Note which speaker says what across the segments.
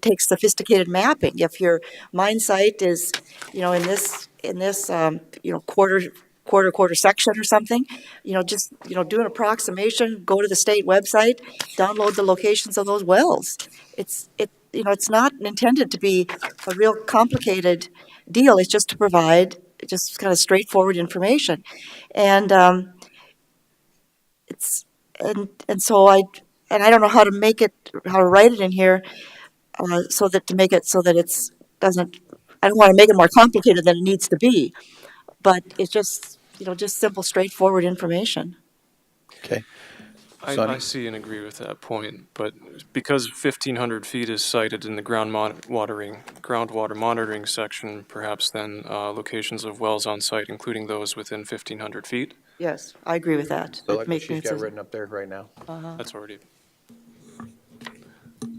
Speaker 1: takes sophisticated mapping. If your mine site is, you know, in this, in this, um, you know, quarter, quarter, quarter section or something, you know, just, you know, do an approximation, go to the state website, download the locations of those wells. It's, it, you know, it's not intended to be a real complicated deal. It's just to provide just kind of straightforward information. And, um, it's, and, and so I, and I don't know how to make it, how to write it in here, uh, so that, to make it so that it's, doesn't, I don't want to make it more complicated than it needs to be. But it's just, you know, just simple, straightforward information.
Speaker 2: Okay.
Speaker 3: I,
Speaker 2: Sonny?
Speaker 3: I see and agree with that point, but because fifteen hundred feet is cited in the ground mon- watering, groundwater monitoring section, perhaps then, uh, locations of wells on site, including those within fifteen hundred feet,
Speaker 1: Yes, I agree with that.
Speaker 2: So
Speaker 1: It Uh-huh.
Speaker 2: like what
Speaker 1: makes me
Speaker 2: she's got
Speaker 1: feel-
Speaker 2: written up there right now.
Speaker 3: that's already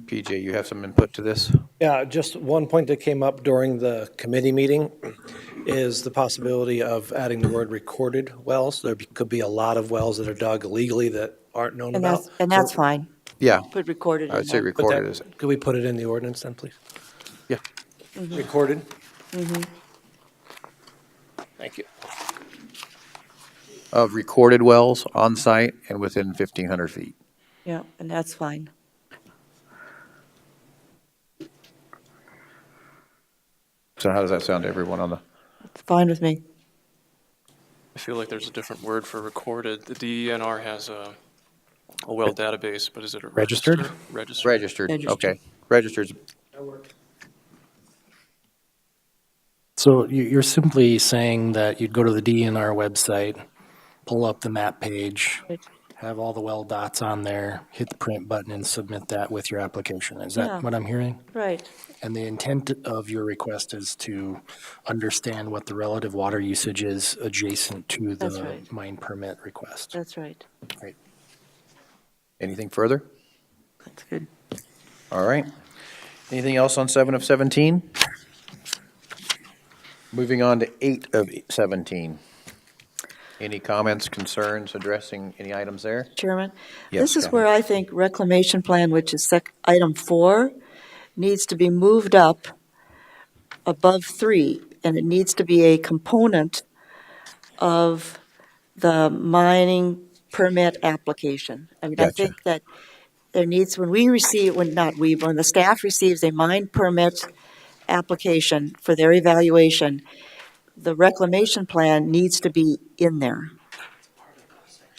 Speaker 2: PJ, you have some input to this?
Speaker 4: Yeah, just one point that came up during the committee meeting is the possibility of adding the word recorded wells. There be- could be a lot of wells that are dug illegally that aren't known
Speaker 1: And
Speaker 4: about.
Speaker 1: that's, and that's fine.
Speaker 2: Yeah,
Speaker 1: Put recorded in
Speaker 2: I would say
Speaker 1: there.
Speaker 4: Put that-
Speaker 2: recorded is,
Speaker 4: Could we put it in the ordinance then, please?
Speaker 2: yeah.
Speaker 1: Mm-hmm.
Speaker 4: Recorded? Thank you.
Speaker 2: Of recorded wells on site and within 1,500 feet.
Speaker 1: Yeah, and that's fine.
Speaker 2: So how does that sound to everyone on the,
Speaker 1: It's fine with me.
Speaker 3: I feel like there's a different word for recorded. The DENR has a, a well database, but is it a
Speaker 4: Registered?
Speaker 3: register? Registered.
Speaker 2: registered?
Speaker 1: Registered.
Speaker 2: Okay, registered.
Speaker 5: So you- you're simply saying that you'd go to the DNR website, pull up the map page, have all the well dots on there, hit the print button and submit that with your application. Is
Speaker 1: Yeah.
Speaker 5: that what I'm hearing?
Speaker 1: Right.
Speaker 5: And the intent of your request is to understand what the relative water usage is adjacent to
Speaker 1: That's
Speaker 5: the
Speaker 1: right.
Speaker 5: mine permit request?
Speaker 1: That's right.
Speaker 5: Right.
Speaker 2: Anything further?
Speaker 1: That's good.
Speaker 2: All right. Anything else on 7 of 17? Moving on to 8 of 17. Any comments, concerns, addressing any items there?
Speaker 1: Chairman?
Speaker 2: Yes,
Speaker 1: This is
Speaker 2: go
Speaker 1: where I think reclamation plan, which is sec, item four, needs to be moved up above three, and it needs to be a component of the mining permit application. I mean, I
Speaker 2: Gotcha.
Speaker 1: think that there needs, when we receive, when not we, when the staff receives a mine permit application for their evaluation, the reclamation plan needs to be in there.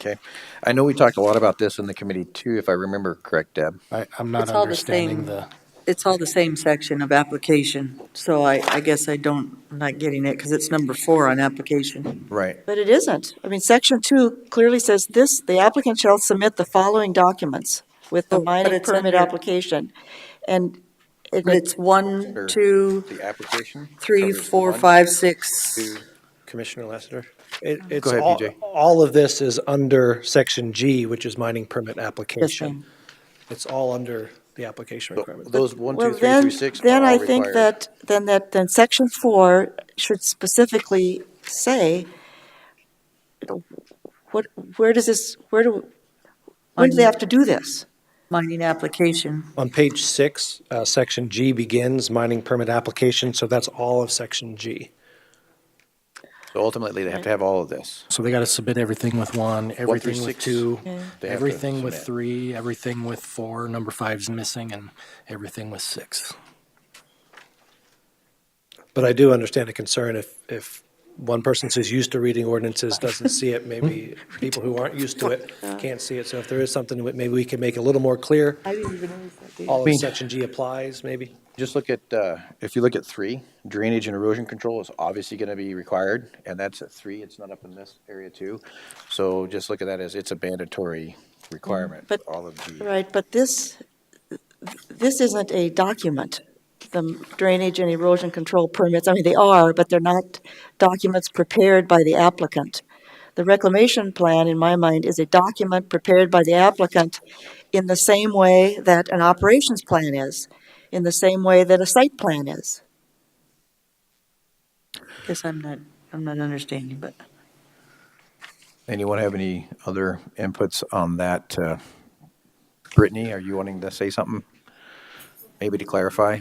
Speaker 2: Okay. I know we talked a lot about this in the committee too, if I remember correct, Deb.
Speaker 5: I, I'm not
Speaker 6: It's all the same.
Speaker 5: understanding the,
Speaker 6: It's all the same section of application, so I, I guess I don't, I'm not getting it, because it's number four on application.
Speaker 2: Right.
Speaker 1: But it isn't. I mean, section two clearly says this, the applicant shall submit the following documents with the
Speaker 6: Oh, but
Speaker 1: mining
Speaker 6: it's
Speaker 1: permit
Speaker 6: under-
Speaker 1: application. And it-
Speaker 6: But it's one, two,
Speaker 2: The application?
Speaker 6: three,
Speaker 2: covers
Speaker 6: four,
Speaker 2: one,
Speaker 6: five, six.
Speaker 4: Commissioner Lassiter? It- It's,
Speaker 2: ahead,
Speaker 4: all,
Speaker 2: BJ.
Speaker 4: all of this is under section G, which is mining permit application.
Speaker 1: ma'am.
Speaker 4: It's all under the application requirement.
Speaker 2: Those one,
Speaker 1: well,
Speaker 2: two, three
Speaker 1: then,
Speaker 2: through six
Speaker 1: then
Speaker 2: are
Speaker 1: I
Speaker 2: all
Speaker 1: think
Speaker 2: required.
Speaker 1: that, then that, then section four should specifically say, you know, what, where does this, where do, when do they have to do this?
Speaker 6: Mining application,
Speaker 4: On page six, uh, section G begins mining permit application, so that's all of section G.
Speaker 2: So ultimately, they have to have all of this.
Speaker 5: so they got to submit everything with one, everything with
Speaker 2: six.
Speaker 5: two,
Speaker 2: They have to
Speaker 5: everything with
Speaker 2: submit.
Speaker 5: three, everything with four, number five's missing, and everything with six.
Speaker 4: But I do understand a concern if, if one person who's used to reading ordinances doesn't see it, maybe people who aren't used to it can't see it. So if there is something, that maybe we can make a little more clear.
Speaker 1: I didn't even notice that.
Speaker 4: All
Speaker 2: mean-
Speaker 4: of section G applies, maybe?
Speaker 2: Just look at, uh, if you look at three, drainage and erosion control is obviously gonna be required, and that's at three, it's not up in this area too. So just look at that as it's a mandatory requirement,
Speaker 1: But-
Speaker 2: all of G.
Speaker 1: Right, but this, this isn't a document, the drainage and erosion control permits. I mean, they are, but they're not documents prepared by the applicant. The reclamation plan, in my mind, is a document prepared by the applicant in the same way that an operations plan is, in the same way that a site plan is.
Speaker 6: guess I'm not, I'm not understanding, but
Speaker 2: Anyone have any other inputs on that? uh, Brittany, are you wanting to say something? Maybe to clarify?